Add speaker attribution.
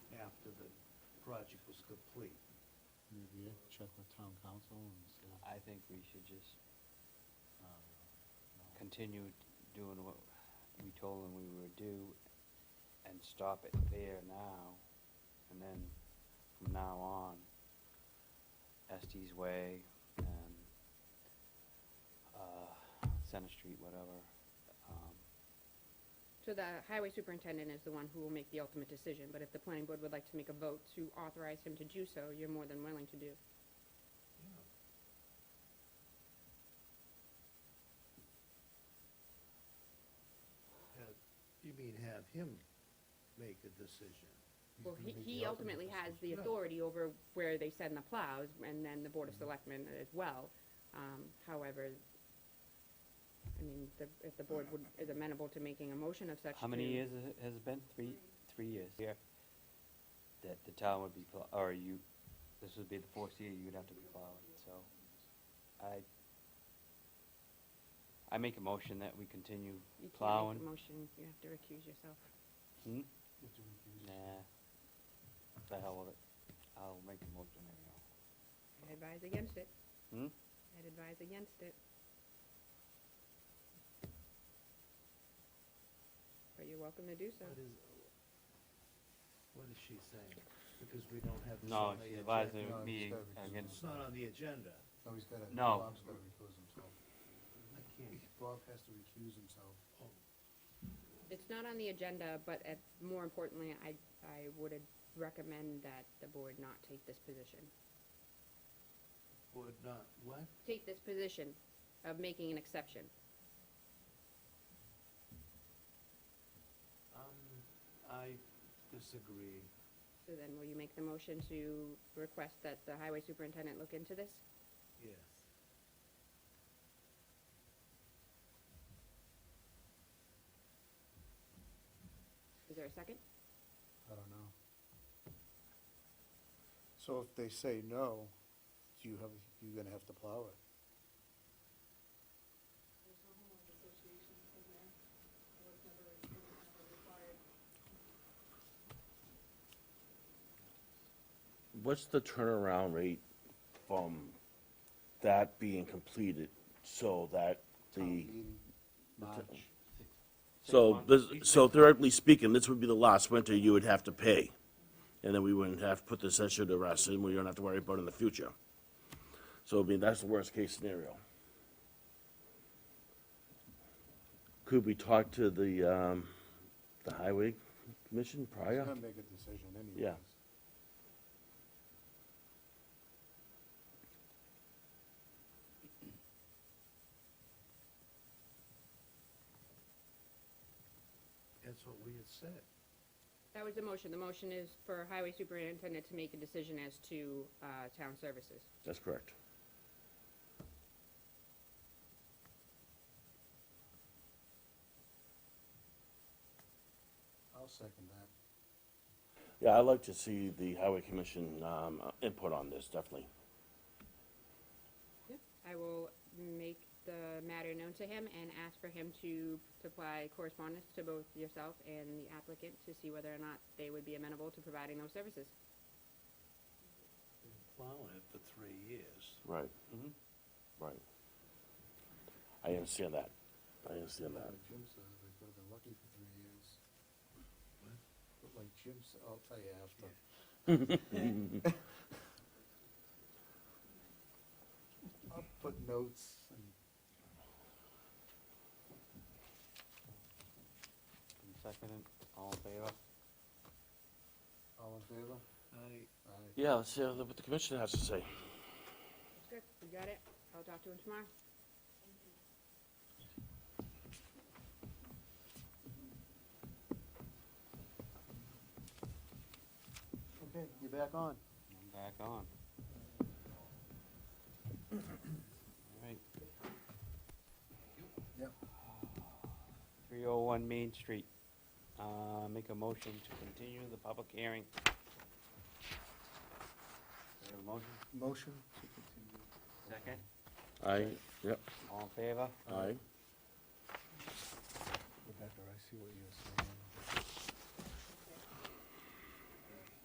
Speaker 1: project was complete.
Speaker 2: Maybe you check with town council and see.
Speaker 3: I think we should just
Speaker 2: um, no.
Speaker 3: continue doing what we told them we would do and stop it there now. And then from now on, Estes Way and, uh, Center Street, whatever. um,
Speaker 4: So the highway superintendent is the one who will make the ultimate decision, but if the planning board would like to make a vote to authorize him to do so, you're more than willing to do.
Speaker 1: Have, you mean have him make a decision?
Speaker 2: He's
Speaker 4: Well,
Speaker 2: gonna
Speaker 4: he,
Speaker 2: make
Speaker 4: he
Speaker 2: the
Speaker 4: ultimately has
Speaker 2: decision.
Speaker 4: the
Speaker 1: Yeah.
Speaker 4: authority over where they send the plows, and then the board
Speaker 2: Mm-hmm.
Speaker 4: of selectmen as well. Um, however, I mean, the, if the board would, is amenable to making a motion of such.
Speaker 3: How many
Speaker 4: to-
Speaker 3: years has it- has it been? Three, three years here? That the town would be, pl- or you, this would be the fourth year you'd have to be plowing, so. I, I make a motion that we continue
Speaker 4: You can't make a
Speaker 3: plowing.
Speaker 4: Motion, you have to recuse yourself.
Speaker 3: Hmm?
Speaker 2: You have to recuse
Speaker 3: Nah,
Speaker 2: yourself.
Speaker 3: the hell with it. I'll make a motion anyhow.
Speaker 4: I'd advise against it.
Speaker 3: Hmm?
Speaker 4: I'd advise against it. But you're welcome to do so.
Speaker 1: What is, what is she saying? Because we don't have. this on
Speaker 3: No,
Speaker 1: the
Speaker 3: she's
Speaker 1: agenda.
Speaker 3: advising
Speaker 2: No, he's
Speaker 3: me
Speaker 2: gotta recuse
Speaker 3: against,
Speaker 1: It's not on the agenda.
Speaker 2: No, he's gotta,
Speaker 3: No.
Speaker 2: Bob's gotta recuse himself.
Speaker 1: I can't,
Speaker 2: Bob has to recuse himself.
Speaker 1: oh,
Speaker 4: It's not on the agenda, but at, more importantly, I, I would ad- recommend that the board not take this position.
Speaker 1: would not, what?
Speaker 4: Take this position of making an exception.
Speaker 1: Um, I disagree.
Speaker 4: So then will you make the motion to request that the highway superintendent look into this?
Speaker 1: Yes.
Speaker 4: Is there a second?
Speaker 2: I don't know.
Speaker 5: So if they say no, you have, you're gonna have to plow it.
Speaker 6: There's no homeowners association in there. It was never, it was never required.
Speaker 7: What's the turnaround rate from that being completed so that
Speaker 2: Town
Speaker 7: the,
Speaker 2: meeting, March,
Speaker 7: so this, so theoretically speaking, this would be the last winter you would have to pay? And then we wouldn't have to put this issue to rest and we don't have to worry about it in the future. So I mean, that's the worst case scenario. Could we talk to the, um, the highway commission
Speaker 2: he's gonna
Speaker 7: prior?
Speaker 2: make a decision anyways.
Speaker 7: Yeah.
Speaker 1: That's what we had said.
Speaker 4: That was the motion. The motion is for highway superintendent to make a decision as to, uh, town services.
Speaker 7: That's correct.
Speaker 2: I'll second that.
Speaker 7: Yeah, I'd like to see the highway commission, um, input on this, definitely.
Speaker 4: I will make the matter known to him and ask for him to supply correspondence to both yourself and the applicant to see whether or not they would be amenable to providing those services.
Speaker 1: Been plowing it for three years.
Speaker 7: Right.
Speaker 3: Mhm.
Speaker 7: Right. I understand that. I understand that.
Speaker 2: Like Jim says, they've got been lucky for three years. But like Jim said, I'll tell you after. I'll put notes and
Speaker 3: Second, all in favor?
Speaker 2: all in favor?
Speaker 1: I,
Speaker 2: Aye.
Speaker 7: Yeah, let's see what the commission has to say.
Speaker 4: Good, we got it. I'll talk to him tomorrow.
Speaker 5: Okay, you're back on.
Speaker 3: I'm back on. All right,
Speaker 2: Yep.
Speaker 3: 301 Main Street. Uh, Make a motion to continue the public hearing. Do we have a motion?
Speaker 5: Motion to continue.
Speaker 3: Second.
Speaker 7: Aye, yep,
Speaker 3: All in favor?
Speaker 7: aye.
Speaker 2: Rebecca, I see what you're saying.